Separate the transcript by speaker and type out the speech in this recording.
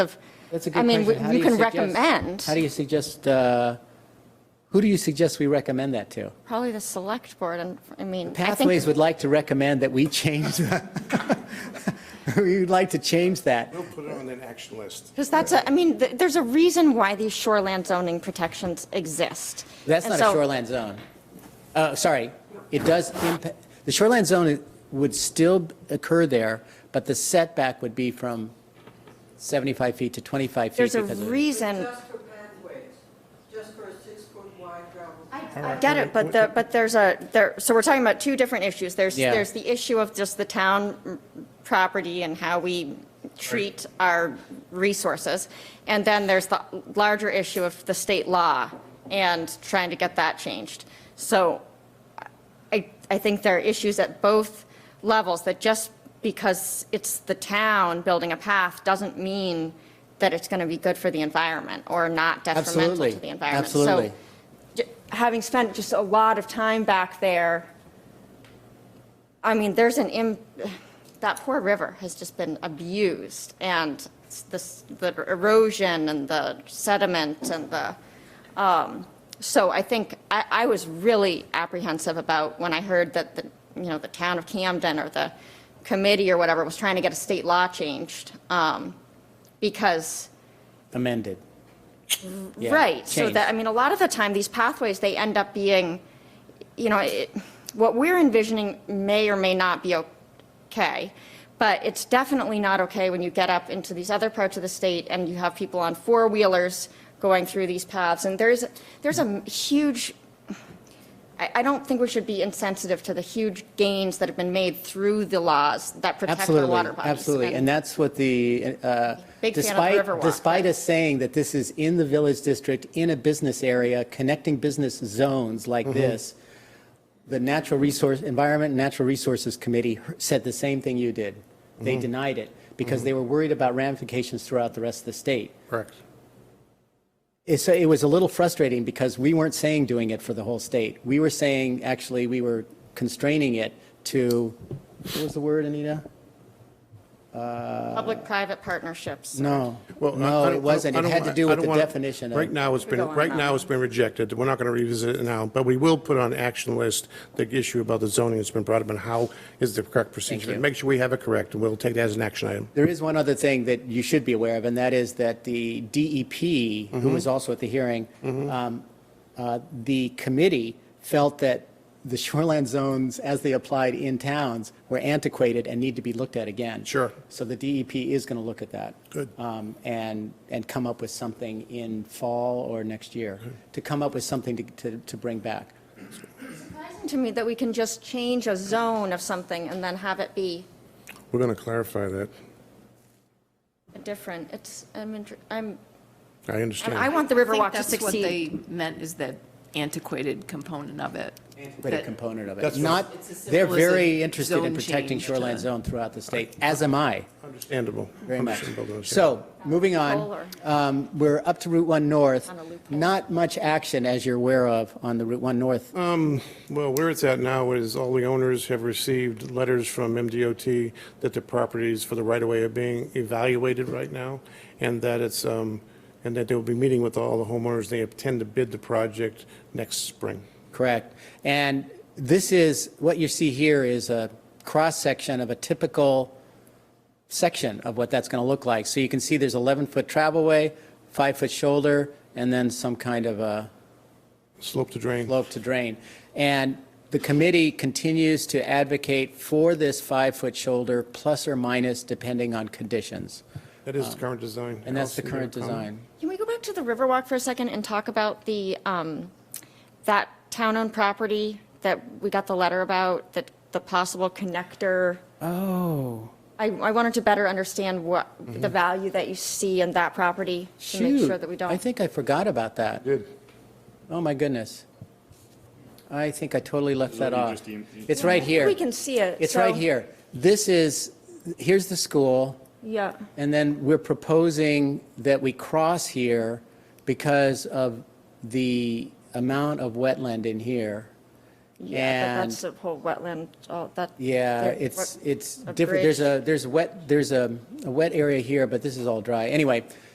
Speaker 1: That's a good
Speaker 2: I mean,
Speaker 1: question. How
Speaker 2: we- you
Speaker 1: do
Speaker 2: can
Speaker 1: suggest-
Speaker 2: recommend,
Speaker 1: How do you suggest, uh, who do you suggest we recommend that to?
Speaker 2: probably the select board, and, I mean, I
Speaker 1: Pathways
Speaker 2: think,
Speaker 1: would like to recommend that we change, the- we would like to change that.
Speaker 3: We'll put it on an action list.
Speaker 2: because that's, a- I mean, th- there's a reason why these shoreland zoning protections exist.
Speaker 1: That's
Speaker 2: And
Speaker 1: not
Speaker 2: so-
Speaker 1: a shoreland zone. Uh, Sorry, it does impact, the shoreland zone would still occur there, but the setback would be from 75 feet to 25 feet.
Speaker 2: There's a
Speaker 1: because of-
Speaker 2: reason,
Speaker 4: Just for pathways, just for a six-foot wide gravel.
Speaker 2: I get it, but the, but there's a, there, so we're talking about two different issues. There's,
Speaker 1: Yeah.
Speaker 2: there's the issue of just the town mm, property and how we treat our resources. And then there's the larger issue of the state law and trying to get that changed. So I, I think there are issues at both levels that just because it's the town building a path doesn't mean that it's going to be good for the environment or not detrimental
Speaker 1: Absolutely.
Speaker 2: to the environment.
Speaker 1: Absolutely.
Speaker 2: So j- having spent just a lot of time back there, I mean, there's an, im- that poor river has just been abused and s- this- the erosion and the sediment and the, um, so I think, I, I was really apprehensive about when I heard that, the you know, the town of Camden or the committee or whatever was trying to get a state law changed. um, Because
Speaker 1: Amended. Yeah,
Speaker 2: Right, so
Speaker 1: changed.
Speaker 2: that, I mean, a lot of the time, these pathways, they end up being, you know, it- what we're envisioning may or may not be okay, but it's definitely not okay when you get up into these other parts of the state and you have people on four-wheelers going through these paths, and there's, there's a huge, I, I don't think we should be insensitive to the huge gains that have been made through the laws that protect our
Speaker 1: Absolutely,
Speaker 2: water bodies.
Speaker 1: absolutely. And that's what the, uh,
Speaker 2: Big fan of the
Speaker 1: despite,
Speaker 2: Riverwalk,
Speaker 1: despite us saying that this is in the village district, in a business area, connecting business zones like this, the Natural Resource, Environment and Natural Resources Committee said the same thing you did. They denied it because they were worried about ramifications throughout the rest of the state.
Speaker 3: Correct.
Speaker 1: It's, it was a little frustrating because we weren't saying doing it for the whole state. We were saying, actually, we were constraining it to, what was the word, Anita?
Speaker 2: Public-private partnerships.
Speaker 1: No,
Speaker 3: Well, I- I
Speaker 1: no,
Speaker 3: don't-
Speaker 1: it wasn't.
Speaker 3: I
Speaker 1: It
Speaker 3: don't
Speaker 1: had to
Speaker 3: want-
Speaker 1: do
Speaker 3: I
Speaker 1: with
Speaker 3: don't
Speaker 1: the
Speaker 3: want-
Speaker 1: definition
Speaker 3: Right
Speaker 1: of,
Speaker 3: now, it's
Speaker 2: Go
Speaker 3: been,
Speaker 2: on,
Speaker 3: right now,
Speaker 2: Bob.
Speaker 3: it's been rejected. We're not going to revisit it now, but we will put on action list the issue about the zoning that's been brought up and how is the correct procedure.
Speaker 1: you.
Speaker 3: Make sure we have it correct, and we'll take that as an action item.
Speaker 1: there is one other thing that you should be aware of, and that is that the DEP, who
Speaker 3: Mm-hmm.
Speaker 1: was also at the hearing, um, uh, the committee felt that the shoreland zones, as they applied in towns, were antiquated and need to be looked at again.
Speaker 3: Sure.
Speaker 1: So the DEP is going to look at that.
Speaker 3: Good.
Speaker 1: um, And, and come up with something in fall or next year, to come up with something to, to, to bring back.
Speaker 2: surprising to me that we can just change a zone of something and then have it be
Speaker 3: We're going to clarify that.
Speaker 2: a different, it's, I'm, inter- I'm,
Speaker 3: I
Speaker 2: and I
Speaker 3: understand.
Speaker 2: want the Riverwalk to
Speaker 5: I
Speaker 2: succeed.
Speaker 5: think that's what they meant, is the antiquated component of it.
Speaker 1: But a
Speaker 5: That-
Speaker 1: component of it.
Speaker 3: That's what-
Speaker 1: Not,
Speaker 5: It's as
Speaker 1: they're
Speaker 5: simple as a
Speaker 1: very interested in
Speaker 5: zone
Speaker 1: protecting
Speaker 5: change uh,
Speaker 1: shoreline
Speaker 5: to-
Speaker 1: zone throughout the state, as am I,
Speaker 3: Understandable.
Speaker 1: very much.
Speaker 3: Understandable.
Speaker 1: So, moving on,
Speaker 2: Polar.
Speaker 1: um, we're up to Route 1 North.
Speaker 2: On a loophole.
Speaker 1: Not much action, as you're aware of, on the Route 1 North.
Speaker 3: Well, where it's at now is all the owners have received letters from MDOT that the properties for the right-of-way are being evaluated right now, and that it's, um, and that they will be meeting with all the homeowners. They intend to bid the project next spring.
Speaker 1: Correct. And this is, what you see here is a cross-section of a typical section of what that's going to look like. So you can see there's 11-foot travelway, five-foot shoulder, and then some kind of a
Speaker 3: Slope to drain.
Speaker 1: slope to drain. And the committee continues to advocate for this five-foot shoulder, plus or minus, depending on conditions.
Speaker 3: That is the current design.
Speaker 1: uh, And that's the
Speaker 3: Allison, you
Speaker 1: current
Speaker 3: have a comment?
Speaker 1: design.
Speaker 2: Can we go back to the Riverwalk for a second and talk about the, um, that town-owned property that we got the letter about, that the possible connector?
Speaker 1: Oh,
Speaker 2: I, I wanted to better understand what, the
Speaker 1: Mm-hmm.
Speaker 2: value that you see in that property to make
Speaker 1: shoot.
Speaker 2: sure that we don't.
Speaker 1: I think I forgot about that.
Speaker 3: Did.
Speaker 1: Oh, my goodness. I think I totally left that
Speaker 6: what you
Speaker 1: off.
Speaker 6: just em- you-
Speaker 1: It's right here.
Speaker 2: We can see it.
Speaker 1: It's right
Speaker 2: so-
Speaker 1: here. This is, here's the school.
Speaker 2: Yeah.
Speaker 1: And then we're proposing that we cross here because of the amount of wetland in here.
Speaker 2: Yeah, but
Speaker 1: And-
Speaker 2: that's the whole wetland, all that.
Speaker 1: Yeah,
Speaker 2: there-
Speaker 1: it's,
Speaker 2: what-
Speaker 1: it's
Speaker 2: a
Speaker 1: different.
Speaker 2: bridge.
Speaker 1: There's a, there's wet, there's a a wet area here, but this is all dry. Anyway,